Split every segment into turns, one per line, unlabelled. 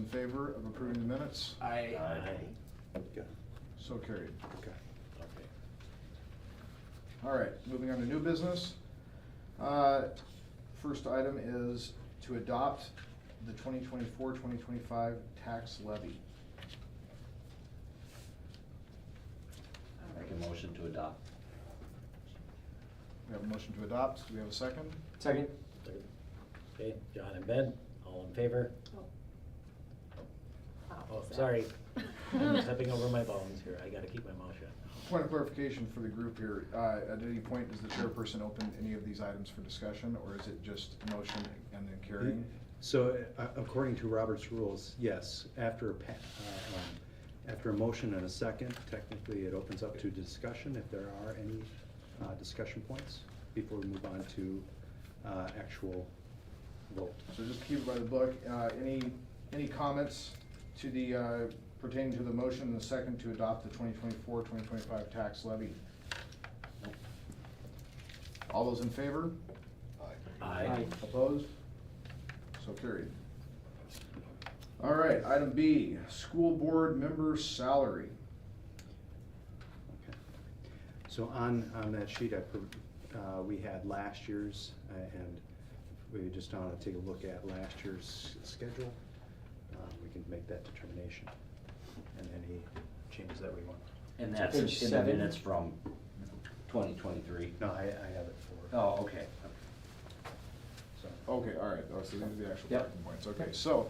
In favor of approving the minutes?
I,
Okay,
So carried.
okay.
okay.
All right, moving on to new business. Uh, First item is to adopt the 2024-2025 tax levy.
Make a motion to adopt.
We have a motion to adopt. Do we have a second?
Second.
Third. Okay, John and Ben, all in favor? Oh, sorry. I'm stepping over my bones here. I gotta keep my mouth shut.
Point of clarification for the group here, uh, at any point, is the chairperson open any of these items for discussion, or is it just motion and then carrying?
So uh, according to Robert's rules, yes, after, a pa- uh, um, after a motion and a second, technically it opens up to discussion if there are any uh, discussion points before we move on to uh, actual vote.
So just keep it by the book. Uh, Any, any comments to the, uh, pertaining to the motion and the second to adopt the 2024, 2025 tax levy? All those in favor?
Aye.
Opposed? So carried. All right, item B, school board member salary.
Okay. So on, on that sheet, I, pro- uh, we had last year's, uh, and we just want to take a look at last year's schedule. Uh, We can make that determination and any changes that we want.
And
To
that's
page
in the
seven.
minutes from twenty twenty-three.
No, I, I have it for.
Oh, okay.
So,
Okay, all right, oh, so these are the actual
Yep.
talking points, okay, so,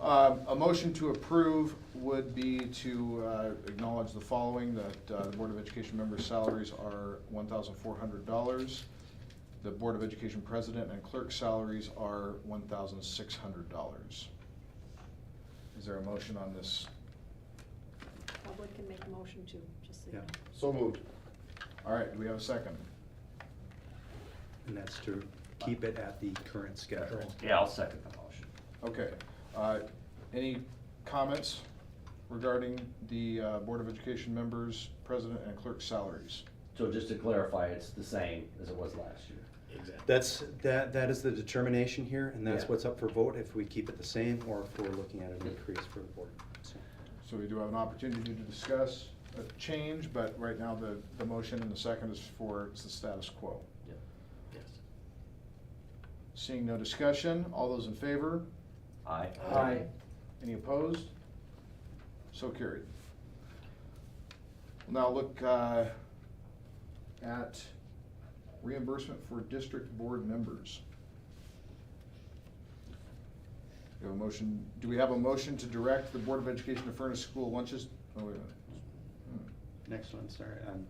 um, a motion to approve would be to, uh, acknowledge the following, that, uh, the Board of Education members' salaries are one thousand four hundred dollars. The Board of Education president and clerk salaries are one thousand six hundred dollars. Is there a motion on this?
Public can make a motion to, just so you
Yeah.
know.
So moved.
All right, do we have a second?
And that's to keep it at the current schedule.
Yeah, I'll second the motion.
Okay, uh, any comments regarding the, uh, Board of Education members' president and clerk salaries?
So just to clarify, it's the same as it was last year.
Exactly.
That's, that, that is the determination here, and that's
Yeah.
what's up for vote, if we keep it the same or if we're looking at an increase for the board. So,
So we do have an opportunity to discuss a change, but right now the, the motion and the second is for, it's the status quo.
Yes.
Seeing no discussion, all those in favor?
Aye.
Aye.
Any opposed? So carried. We'll Now look uh, at reimbursement for district board members. We have a motion, do we have a motion to direct the Board of Education to furnish school lunches? Oh, wait a minute. Hmm.
Next one, sorry, um,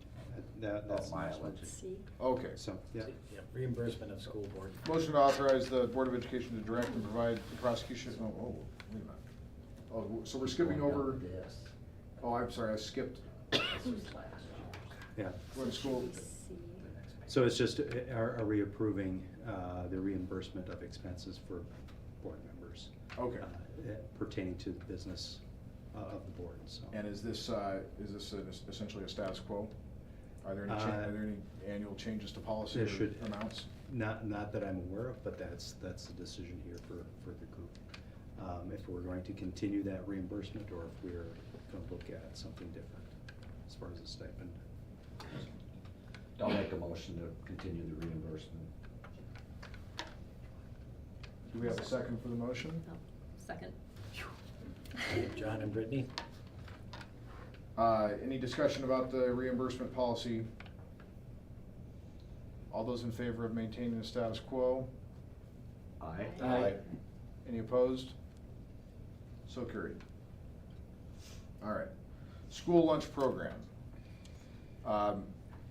that,
Oh,
that's.
mileage.
See,
Hmm. Okay.
So, yeah.
Yep, Reimbursement of school board.
Motion to authorize the Board of Education to direct and provide the prosecution, oh, oh, wait a minute. Oh, so we're skipping over,
This.
oh, I'm sorry, I skipped,
This was last year.
Yeah,
we're in school.
see.
The next page.
so it's just, uh, are, are we approving, uh, the reimbursement of expenses for board members?
Okay,
uh, Pertaining to the business uh, of the board, so.
and is this, uh, is this an- essentially a status quo? Are there any, cha-
Uh,
are there any annual changes to policy
there should-
or amounts?
Not, not that I'm aware of, but that's, that's the decision here for, for the group. Um, If we're going to continue that reimbursement or if we're gonna look at something different as far as the stipend.
I'll make a motion to continue the reimbursement.
Do we have a second for the motion?
no, second.
John and Brittany?
Uh, Any discussion about the reimbursement policy? All those in favor of maintaining the status quo?
Aye.
Aye.
Any opposed? So carried. All right. School lunch program. Um,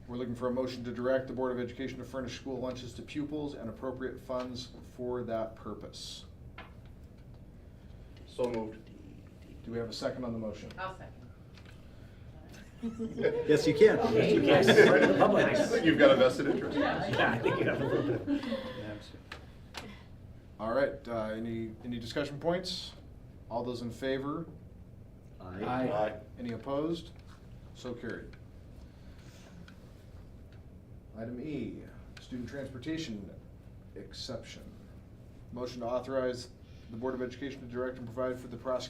We're looking for a motion to direct the Board of Education to furnish school lunches to pupils and appropriate funds for that purpose.
So moved.
Do we have a second on the motion?
I'll second.
Yes, you can.
Yes, you can. Right in the public.
I think You've got a vested interest.
Yeah, I think you have a little bit.
All right, uh, any, any discussion points? All those in favor?
Aye.
Any opposed? So carried. Item E, student transportation exception. Motion to authorize the Board of Education to direct and provide for the prosecution